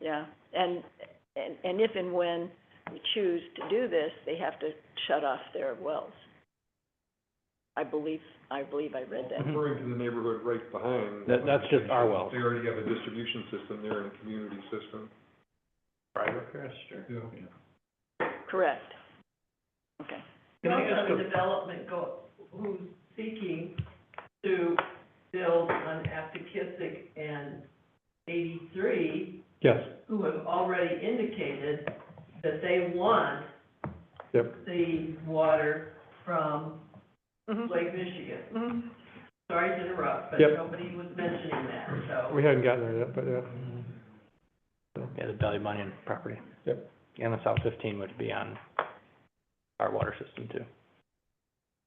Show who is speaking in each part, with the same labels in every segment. Speaker 1: yeah. And, and, and if and when we choose to do this, they have to shut off their wells. I believe, I believe I read that.
Speaker 2: Referring to the neighborhood right behind.
Speaker 3: That- that's just our well.
Speaker 2: They already have a distribution system there and a community system.
Speaker 3: Private pasture.
Speaker 2: Yeah.
Speaker 1: Correct. Okay.
Speaker 3: Can I ask
Speaker 4: Does the
Speaker 3: a-
Speaker 4: development go, who's seeking to build on Aptekissic and eighty-three,
Speaker 3: Yes,
Speaker 4: who have already indicated that they want
Speaker 3: yep.
Speaker 4: the water from
Speaker 1: Mhm.
Speaker 4: Lake Michigan.
Speaker 1: Mhm.
Speaker 4: Sorry to interrupt, but
Speaker 3: Yep.
Speaker 4: nobody was mentioning that, so.
Speaker 3: We hadn't gotten there yet, but yeah.
Speaker 5: Yeah, the Valley Bunyan property.
Speaker 3: Yep.
Speaker 5: And the South fifteen would be on our water system too.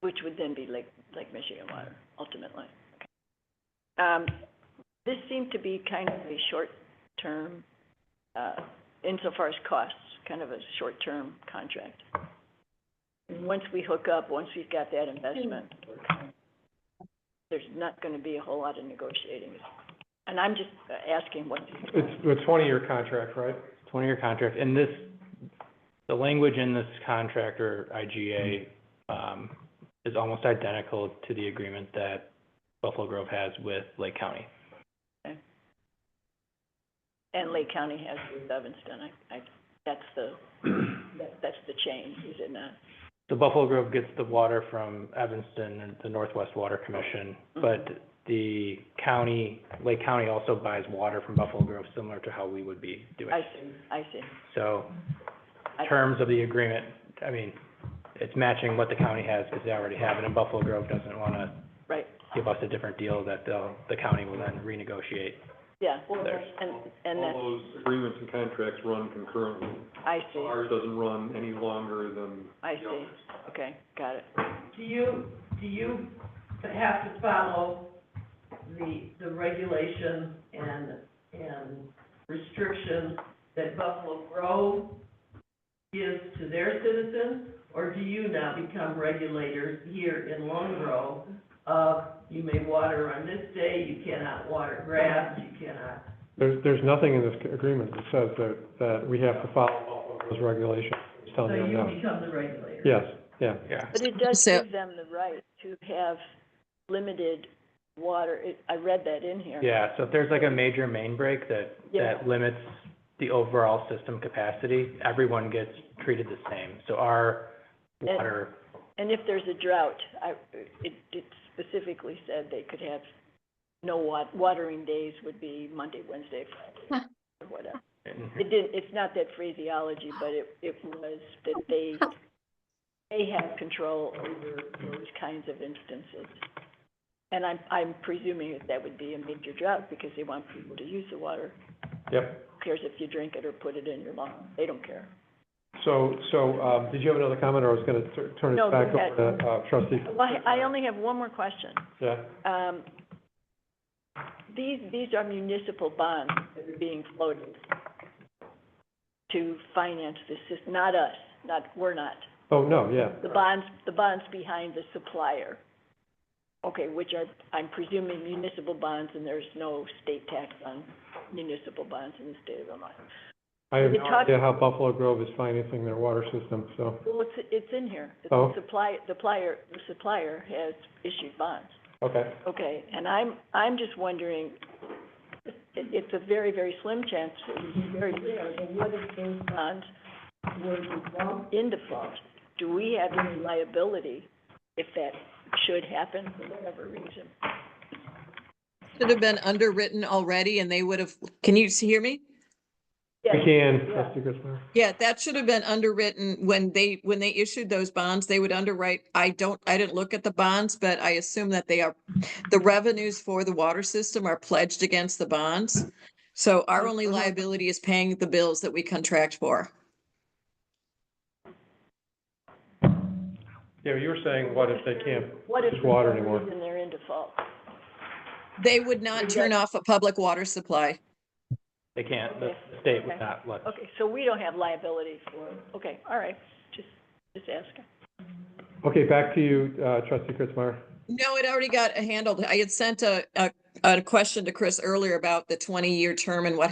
Speaker 1: Which would then be Lake, Lake Michigan water, ultimately. Okay. Um, this seemed to be kind of a short-term, uh, insofar as costs, kind of a short-term contract. Once we hook up, once we've got that investment, there's not gonna be a whole lot of negotiating. And I'm just uh, asking what,
Speaker 3: It's, it's a twenty-year contract, right?
Speaker 5: Twenty-year contract, and this, the language in this contract or IGA, um, is almost identical to the agreement that Buffalo Grove has with Lake County.
Speaker 1: and Lake County has with Evanston, I, I, that's the, that, that's the change, is it not?
Speaker 5: So Buffalo Grove gets the water from Evanston and the Northwest Water Commission,
Speaker 1: Mm-hmm.
Speaker 5: but the county, Lake County also buys water from Buffalo Grove, similar to how we would be doing.
Speaker 1: I see, I see.
Speaker 5: So,
Speaker 1: I-
Speaker 5: terms of the agreement, I mean, it's matching what the county has, because they already have it, and Buffalo Grove doesn't wanna
Speaker 1: Right.
Speaker 5: give us a different deal that they'll, the county will then renegotiate.
Speaker 1: Yeah,
Speaker 5: There's-
Speaker 1: and, and that,
Speaker 2: All those agreements and contracts run concurrently.
Speaker 1: I
Speaker 2: So
Speaker 1: see,
Speaker 2: Ours doesn't run any longer than
Speaker 1: I
Speaker 2: the others.
Speaker 1: see, okay, got it.
Speaker 4: Do you, do you have to follow the, the regulation and, and restriction that Buffalo Grove gives to their citizens? Or do you now become regulators here in Lone Grove of, you may water on this day, you cannot water grass, you cannot?
Speaker 3: There's, there's nothing in this agreement that says that, that we have to follow those regulations. It's
Speaker 4: So
Speaker 3: telling them
Speaker 4: you
Speaker 3: no.
Speaker 4: become the regulator.
Speaker 3: Yes, yeah.
Speaker 5: Yeah.
Speaker 1: But it does
Speaker 6: So-
Speaker 1: give them the right to have limited water, it, I read that in here.
Speaker 5: Yeah, so if there's like a major main break that,
Speaker 1: Yeah.
Speaker 5: that limits the overall system capacity, everyone gets treated the same. So our
Speaker 1: And-
Speaker 5: water,
Speaker 1: And if there's a drought, I, it, it specifically said they could have no wa- watering days would be Monday, Wednesday, Friday, or whatever.
Speaker 3: Mm-hmm.
Speaker 1: It didn't, it's not that phraseology, but it, it was that they, they have control over those kinds of instances. And I'm, I'm presuming that that would be a major drought because they want people to use the water.
Speaker 3: Yep.
Speaker 1: Who cares if you drink it or put it in your lawn? They don't care.
Speaker 3: So, so, um, did you have another comment, or I was gonna tur- turn
Speaker 1: No,
Speaker 3: it back
Speaker 1: go ahead.
Speaker 3: over to, uh, trustee?
Speaker 1: Well, I, I only have one more question.
Speaker 3: Yeah,
Speaker 1: Um, these, these are municipal bonds that are being floated to finance this system, not us, not, we're not.
Speaker 3: oh, no, yeah.
Speaker 1: The bonds, the bonds behind the supplier. Okay, which are, I'm presuming municipal bonds, and there's no state tax on municipal bonds in the state of Illinois.
Speaker 3: I have
Speaker 1: We
Speaker 3: no
Speaker 1: talked-
Speaker 3: idea how Buffalo Grove is financing their water system, so,
Speaker 1: Well, it's, it's in here.
Speaker 3: Oh.
Speaker 1: The supply, the supplier, the supplier has issued bonds.
Speaker 3: okay.
Speaker 1: Okay, and I'm, I'm just wondering, it, it's a very, very slim chance, very rare, but what if those bonds were to fall in default? Do we have any liability if that should happen for whatever reason?
Speaker 6: Should have been underwritten already and they would have, can you s- hear me?
Speaker 1: Yes.
Speaker 3: We can,
Speaker 1: Yeah.
Speaker 3: trustee Griswold.
Speaker 6: Yeah, that should have been underwritten when they, when they issued those bonds, they would underwrite, I don't, I didn't look at the bonds, but I assume that they are, the revenues for the water system are pledged against the bonds. So our only
Speaker 1: Mhm.
Speaker 6: liability is paying the bills that we contract for.
Speaker 3: Yeah, you were saying, what if they can't?
Speaker 1: What if
Speaker 3: Just
Speaker 1: for
Speaker 3: water
Speaker 1: some
Speaker 3: anymore.
Speaker 1: reason they're in default?
Speaker 6: They would not turn off a public water supply.
Speaker 5: they can't, the
Speaker 1: Okay.
Speaker 5: the state would
Speaker 1: Okay.
Speaker 5: not let.
Speaker 1: Okay, so we don't have liability for, okay, all right, just, just asking.
Speaker 3: Okay, back to you, uh, trustee Kritzmeyer.
Speaker 6: No, it already got handled. I had sent a, a, a question to Chris earlier about the twenty-year term and what